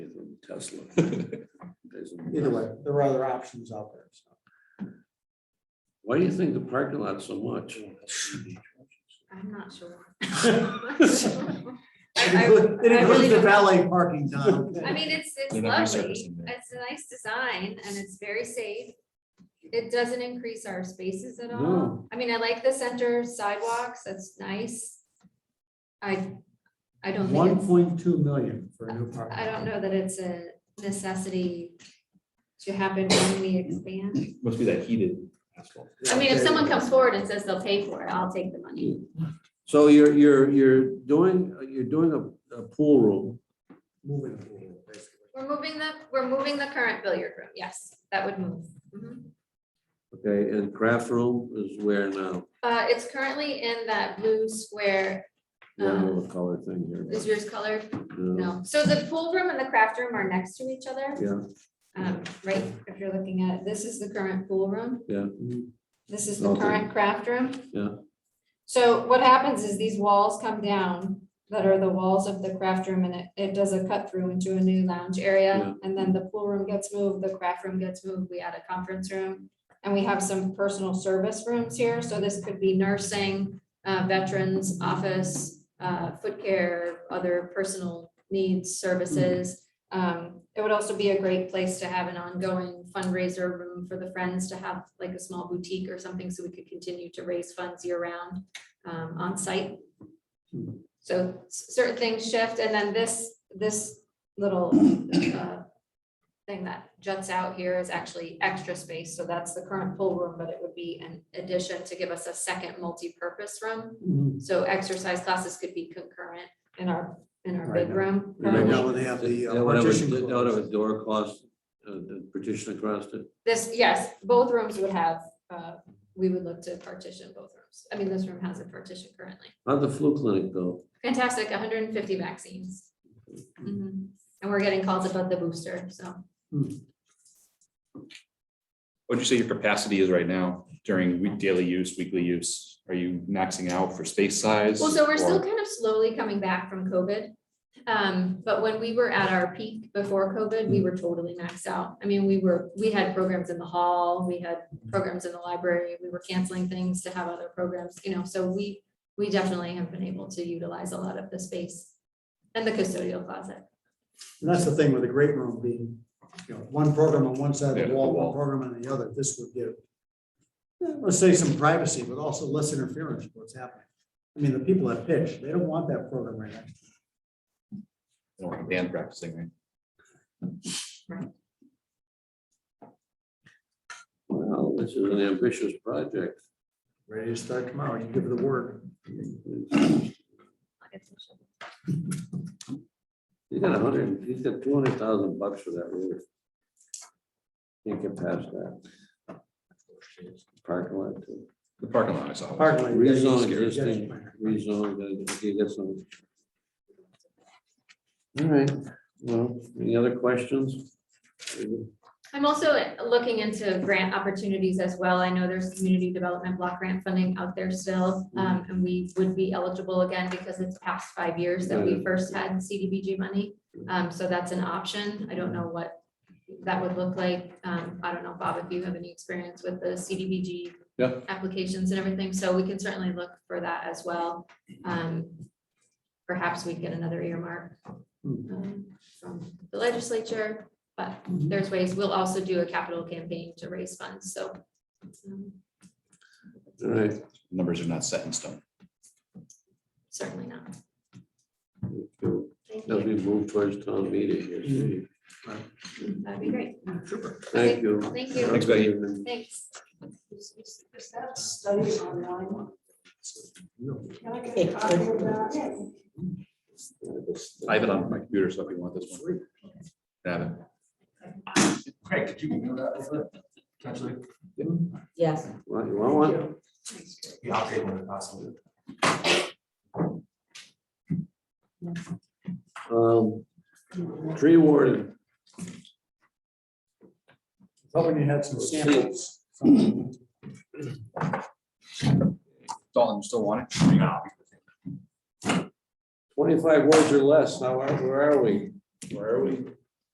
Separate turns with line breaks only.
Tesla. There's a-
Either way, there are other options out there. so.
Why do you think the parking lot so much?
I'm not sure.
It
I- I-
includes- It
I really
includes the
don't-
valet parking, Don.
I mean, it's, it's
They're not gonna
lovely,
service them there.
it's a nice design and it's very safe. It doesn't increase our spaces at all.
No.
I mean, I like the center sidewalks, that's nice. I, I don't think,
One
it's-
point two million for a new parking.
I don't know that it's a necessity to happen when we expand.
Must be that heated asphalt.
I mean, if someone comes forward and says they'll pay for it, I'll take the money.
So you're, you're, you're doing, you're doing a, a pool room.
Moving forward, basically.
We're moving the, we're moving the current billiard room, yes, that would move. Mhm.
Okay, and craft room is where now?
Uh, it's currently in that blue square.
Yeah, I don't know
um,
what color thing here.
Is yours colored?
but, uh,
No. So the pool room and the craft room are next to each other,
Yeah,
um, right? If you're looking at, it, this is the current pool room.
yeah.
This is the
Okay.
current craft room.
Yeah.
So what happens is these walls come down that are the walls of the craft room and it, it does a cut through into a new lounge
Yeah.
area. And then the pool room gets moved, the craft room gets moved, we add a conference room. And we have some personal service rooms here, so this could be nursing, uh, veterans, office, uh, foot care, other personal needs services. Um, it would also be a great place to have an ongoing fundraiser room for the friends to have like a small boutique or something, so we could continue to raise funds year round, um, on site. So s- certain things shift, and then this, this little, uh, thing that juts out here is actually extra space, so that's the current pool room, but it would be an addition to give us a second multi-purpose room.
Mhm.
So exercise classes could be concurrent in our, in our
Right
big room.
Right
Right
Um,
now, when they have the uh,
That would have a-
partition.
That would have a
closed.
door across, uh, the partition across it.
This, yes, both rooms would have, uh, we would look to partition both rooms. I mean, this room has a partition currently.
How'd the flu clinic go?
Fantastic, hundred and fifty vaccines. Mhm. And we're getting calls about the booster, so.
What'd you say your capacity is right now during week, daily use, weekly use? Are you maxing out for space size?
Well, so we're still
or-
kind of slowly coming back from COVID. Um, but when we were at our peak before COVID, we were totally maxed out. I mean, we were, we had programs in the hall, we had programs in the library, we were canceling things to have other programs, you know, so we, we definitely have been able to utilize a lot of the space and the custodial closet.
And that's the thing with a great room being, you know, one program on one side
Yeah,
of
the
the wall, one
wall.
program on the other, this would give. eh, Let's say some privacy, but also less interference with what's happening. I mean, the people that pitch, they don't want that program right next to
I don't have Band practicing, right?
Well, this is an ambitious project.
them. ready to start tomorrow, you give her the word.
I'll get some shit.
He's got a hundred, he's got two hundred thousand bucks for that roof. Can't get past that. Parking lot too.
The parking lot I saw. was-
Parkland, you gotta use
Rezone
your
existing,
judgment there.
rezone, then if you get some. All right, well, any other questions?
I'm also looking into grant opportunities as well. I know there's community development block grant funding out there still. Um, and we would be eligible again because it's past five years that we first had CDBG money. Um, so that's an option. I don't know what that would look like. Um, I don't know, Bob, if you have any experience with the CDBG
Yeah.
applications and everything, so we can certainly look for that as well. Um, perhaps we get another earmark um, from the legislature there's ways, we'll also do a capital campaign to raise funds, so. um,
All right,
Numbers are not set in stone.
Certainly not. Thank
as
you.
we move towards town meeting here, Steve.
That'd be great.
thank you.
Thank you.
Thanks, Becky.
Thanks.
Is, is- is that study online? Can I get a
It
copy of
could be.
that?
I have it on my computer, so if you want this one. Have it.
Craig, did you know that? was it? Potentially,
Yes,
Well, you want one?
yeah, I'll take one if possible.
Um, tree warden,
Hoping you had some samples.
Dalton, you still want it?
twenty-five words or less, now, where where are we?
Where are we?